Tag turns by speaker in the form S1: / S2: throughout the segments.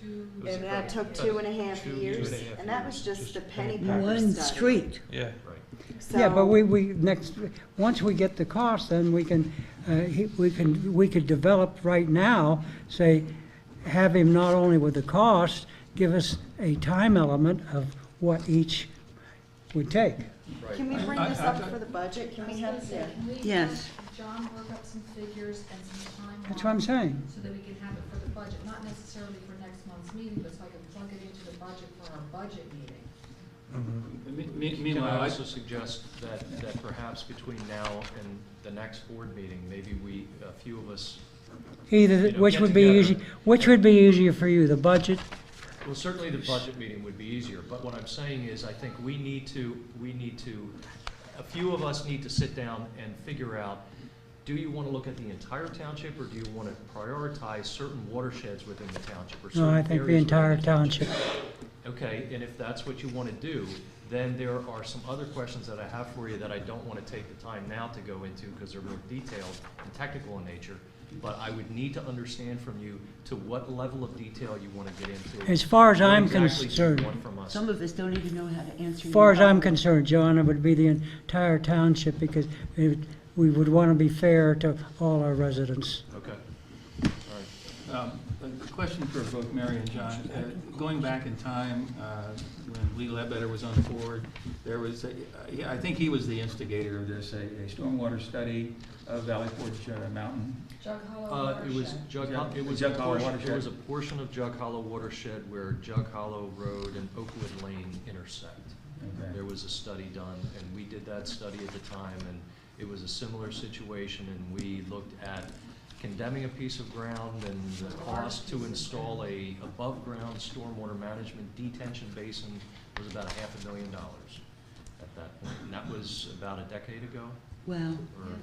S1: two.
S2: It was
S3: And that took two and a half
S2: Two
S3: years,
S2: and a half
S3: and that was
S2: years,
S3: just
S2: just
S3: the
S2: to
S3: penny
S2: finish.
S3: Pepper
S4: One
S3: study.
S4: street.
S2: Yeah, right.
S4: Yeah,
S3: So-
S4: but we, we, next, once we get the cost, then we can, uh, he- we can, we could develop right now, say, have him not only with the cost, give us a time element of what each would take.
S3: Can we bring this up for the budget? Can we have it there?
S1: Can we have
S5: Yes.
S1: John work up some figures and some timelines?
S4: That's what I'm saying.
S1: So that we can have it for the budget, not necessarily for next month's meeting, but so I can plug it into the budget for our budget meeting.
S6: Me- me- Meanwhile, I also suggest that, that perhaps between now and the next board meeting, maybe we, a few of us,
S4: Either,
S6: You know,
S4: which
S6: get
S4: would be
S6: together.
S4: easy, which would be easier for you, the budget?
S6: well, certainly the budget meeting would be easier, but what I'm saying is, I think we need to, we need to, a few of us need to sit down and figure out, do you want to look at the entire township, or do you want to prioritize certain watersheds within the township, or certain
S4: No, I think the
S6: areas within
S4: entire township.
S6: Okay, and if that's what you want to do, then there are some other questions that I have for you that I don't want to take the time now to go into because they're more detailed and technical in nature. But I would need to understand from you to what level of detail you want to get into.
S4: As far as
S6: What
S4: I'm
S6: exactly do you
S4: concerned,
S6: want from us?
S5: Some of us don't even know how to answer.
S4: as far as
S5: your-
S4: I'm concerned, John, it would be the entire township because it, we would want to be fair to all our residents.
S6: Okay, all right.
S7: Um, A question for both Mary and John. Uh, Going back in time, uh, when Lee Ledbetter was on the board, there was, a- yeah, I think he was the instigator of this, a a stormwater study of Valley Forge uh, Mountain.
S1: Jug Hollow
S6: Uh,
S1: watershed.
S6: it was Jug, Hol- it was a
S7: Jug Hollow
S6: portion, it
S7: watershed.
S6: was a portion of Jug Hollow watershed where Jug Hollow Road and Oakwood Lane intersect.
S7: Okay.
S6: There was a study done, and we did that study at the time, and it was a similar situation, and we looked at condemning a piece of ground and the cost to install a above-ground stormwater management detention basin was about a half a million dollars at that point. And that was about a decade ago,
S5: Wow.
S6: or,
S1: Yeah,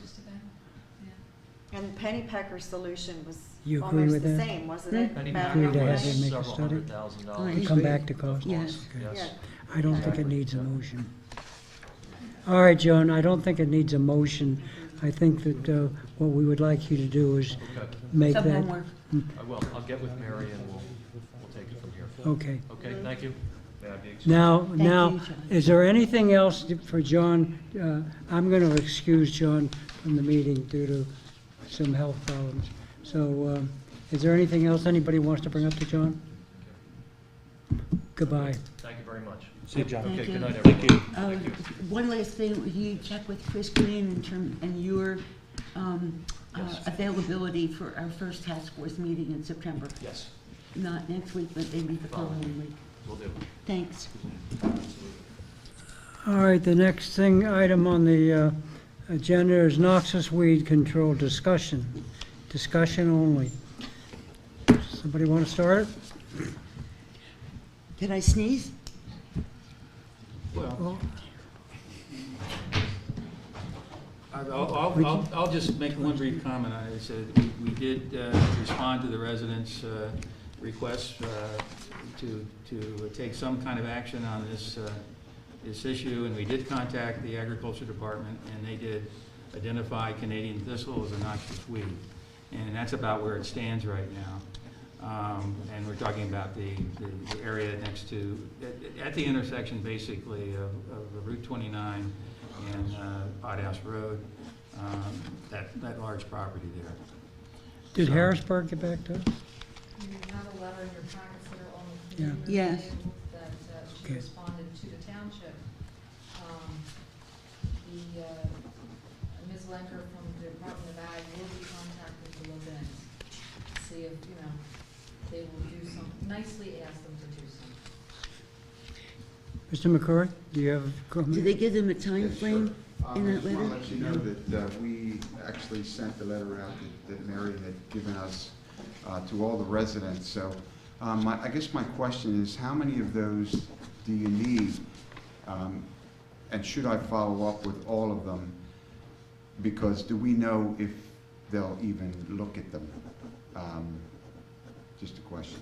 S1: just about, yeah.
S3: And Penny Pecker's solution was
S4: You agree
S3: almost
S4: with
S3: the
S4: that?
S3: same, wasn't it?
S6: Penny
S3: About
S4: Agree to
S3: how
S4: have
S3: much-
S4: him make a
S6: several
S4: study?
S6: hundred thousand dollars.
S4: And come back to cost.
S5: Yes.
S4: Okay.
S3: Yeah.
S4: I don't think it needs a motion. All right, Joan, I don't think it needs a motion. I think that uh, what we would like you to do is
S6: Okay,
S4: make
S5: Some
S4: that,
S5: homework.
S6: I will, I'll get with Mary and we'll, we'll take it from here.
S4: okay.
S6: Okay, thank you. May I be excused?
S4: Mm-hmm. Now,
S5: you,
S4: now,
S5: John.
S4: is there anything else for John? Uh, I'm going to excuse John from the meeting due to some health problems. So um, is there anything else anybody wants to bring up to John? Goodbye.
S6: Thank you very much.
S2: See you, John.
S6: Okay,
S5: Thank
S6: good
S5: you.
S6: night, everyone.
S5: Uh, One last thing, will you check with Chris Green in term, and your um, uh,
S6: Yes.
S5: availability for our first task force meeting in September?
S6: Yes,
S5: Not next week, but maybe the following week.
S6: will do.
S5: Thanks.
S4: All right, the next thing, item on the uh, agenda is noxious weed control discussion, discussion only. Somebody want to start it?
S5: Did I sneeze?
S7: Well, I- I'll, I'll, I'll- I'll just make one brief comment. I said, we- we did uh, respond to the residents' uh, requests uh, to, to take some kind of action on this, uh, this issue, and we did contact the agriculture department, and they did identify Canadian thistle as a noxious weed. And that's about where it stands right now. Um, And we're talking about the, the- the area next to, at- at the intersection basically of of Route 29 and uh, Pothouse Road, um, that, that large property there.
S4: Did
S7: So-
S4: Harrisburg get back to us?
S1: You have a letter in your packets that are on the
S4: Yeah.
S1: committee review
S5: Yes.
S1: that uh, she
S4: Okay.
S1: responded to the township. Um, The, uh, Ms. Lenker from the Department of Ag will be contacting the Levins, to see if, you know, they will do some, nicely ask them to do something.
S4: Mr. McCrory, do you have a
S5: Did
S4: comment?
S5: they give them a time
S8: Yes, sure.
S5: frame?
S8: Uh,
S5: in
S8: I
S5: that
S8: just want
S5: letter?
S8: to let you know that uh, we actually sent the letter out that- that Mary had given us uh, to all the residents. So um, my- I guess my question is, how many of those do you need? Um, And should I follow up with all of them? Because do we know if they'll even look at them? Um, Just a question.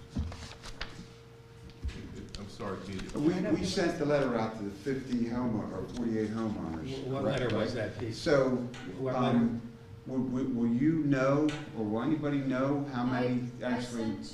S2: I'm sorry, can you-
S8: We we sent the letter out to the 50 homeowner, or 48 homeowners.
S7: What letter
S8: correct?
S7: was that piece?
S8: So,
S7: What letter?
S8: um, will, will will you know, or will anybody know how many
S1: I- I
S8: actually?
S1: sent